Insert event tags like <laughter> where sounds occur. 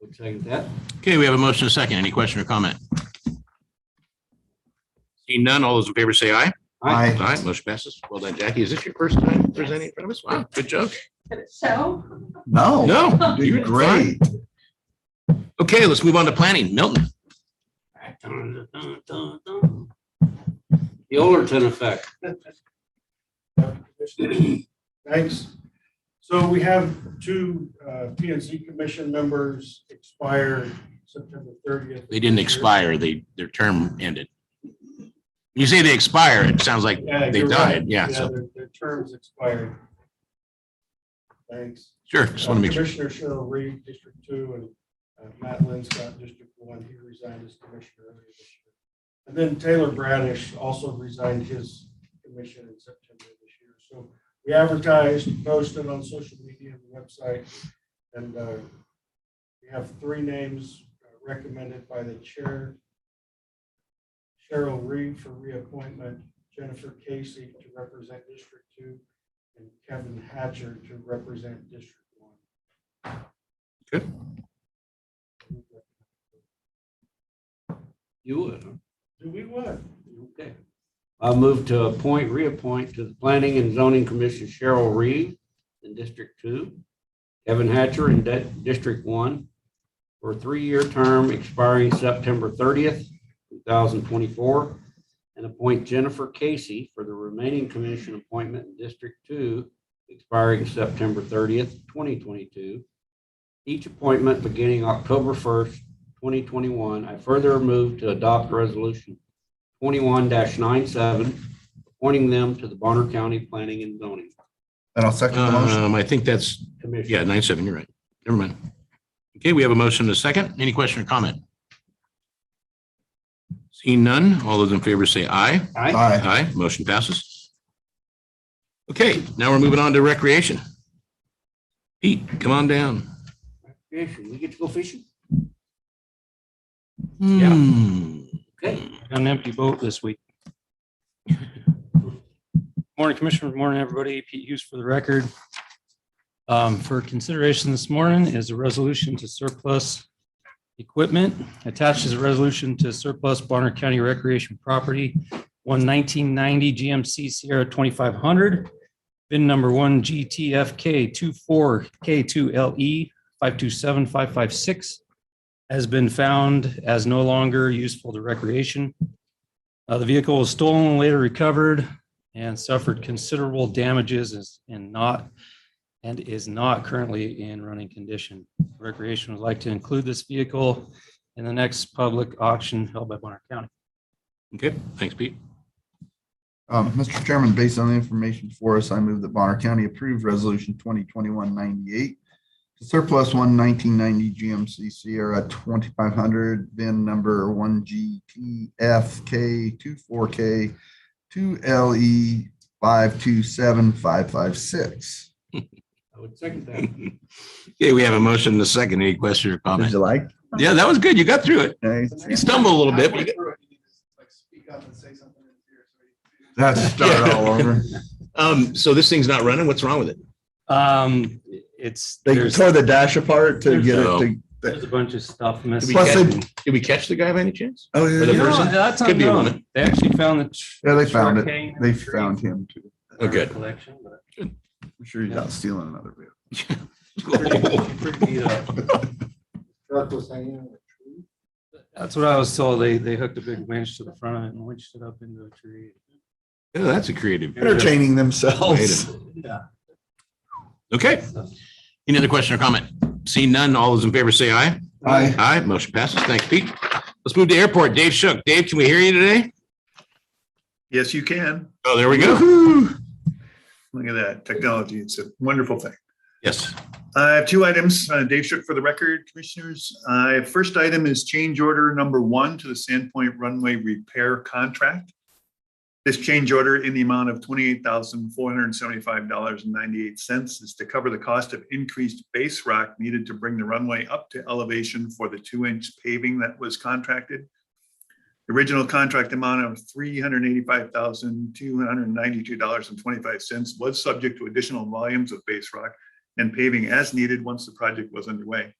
Would second that. Okay, we have a motion and a second. Any question or comment? Seeing none, all those in favor say aye. Aye. Aye, motion passes. Well done, Jackie. Is this your first time presenting in front of us? Wow, good job. So, No. No. You did great. Okay, let's move on to planning. Milton. The Overton effect. Thanks. So we have two uh, P and Z commission members expire September thirtieth. They didn't expire. They, their term ended. You say they expire, it sounds like Yeah, they you're right. died. Yeah, so, Their their terms expired. Thanks. sure. Just want to make sure. Commissioner Cheryl Reed, District Two, and uh, Matt Linscott, District One, he resigned as commissioner earlier this year. And then Taylor Bradish also resigned his commission in September of this year. So we advertised, posted on social media and website, and uh, we have three names uh, recommended by the chair. Cheryl Reed for reappointment, Jennifer Casey to represent District Two, and Kevin Hatcher to represent District One. Good. You would, huh? Do we what? okay. I move to appoint, reappoint to the Planning and Zoning Commission Cheryl Reed in District Two, Kevin Hatcher in De- District One, for a three-year term expiring September thirtieth, two thousand twenty-four, and appoint Jennifer Casey for the remaining commission appointment in District Two, expiring September thirtieth, twenty twenty-two. Each appointment beginning October first, twenty twenty-one. I further move to adopt resolution twenty-one 97 appointing them to the Bonner County Planning and Zoning And I'll second the motion. Um, I think that's, Commission. yeah, nine, seven, you're right. Never mind. Okay, we have a motion and a second. Any question or comment? Seeing none, all those in favor say aye. Aye. Aye. Aye, motion passes. Okay, now we're moving on to recreation. Pete, come on down. Recreation. We get to go fishing? Hmm. Yeah. Okay. got an empty boat this week. Morning, Commissioner. Morning, everybody. Pete Hughes for the record. Um, For consideration this morning is a resolution to surplus equipment. Attached is a resolution to surplus Bonner County Recreation Property, one nineteen ninety GMC Sierra twenty-five hundred, bin number one GTFK 24 K two LE five two seven five five six has been found as no longer useful to recreation. Uh, the vehicle was stolen, later recovered, and suffered considerable damages is- and not, and is not currently in running condition. Recreation would like to include this vehicle in the next public auction held by Bonner County. Okay, thanks, Pete. Um, Mr. Chairman, based on the information before us, I move that Bonner County approve resolution 2021-98 to surplus one 1990 GMC Sierra 2500, VIN number E 1GTFK24K2LE527556. I would second that. Okay, we have a motion and a second. Any question or Did comment? you like? Yeah, that was good. You got through it. You stumbled a little bit, but you got- That's a start all over. um, so this thing's not running. What's wrong with it? Um, it's, <laughs> They there's, tore the dash apart to get it to. there's a bunch of stuff Did missing. we Plus they- catch, did we catch the guy by any chance? Oh, For the You yeah, know, person? that's Could be unknown. one. They actually found the. tr- Yeah, they found it. trunk They hanging found him too. Oh, good. Collection, but- I'm sure he's out stealing another vehicle. uh, Truck was hanging on a tree. That's what I was told. They, they hooked a big winch to the front of it and winched it up into a tree. Oh, that's a creative. Entertaining themselves. Yeah. Okay. Any other question or comment? Seeing none, all those in favor say aye. Aye. Aye, motion passes. Thanks, Pete. Let's move to airport. Dave Shook. Dave, can we hear you today? Yes, you can. Oh, there we go. <laughs> Woo-hoo. Look at that technology. It's a wonderful thing. Yes. I have two items. uh, Dave Shook for the record, Commissioners. Uh, First item is change order number one to the Sandpoint runway repair contract. This change order in the amount of twenty-eight thousand, four hundred and seventy-five dollars and ninety-eight cents is to cover the cost of increased base rock needed to bring the runway up to elevation for the two-inch paving that was contracted. The Original contract amount of three hundred eighty-five thousand, two hundred ninety-two dollars and twenty-five cents was subject to additional volumes of base rock and paving as needed once the project was underway.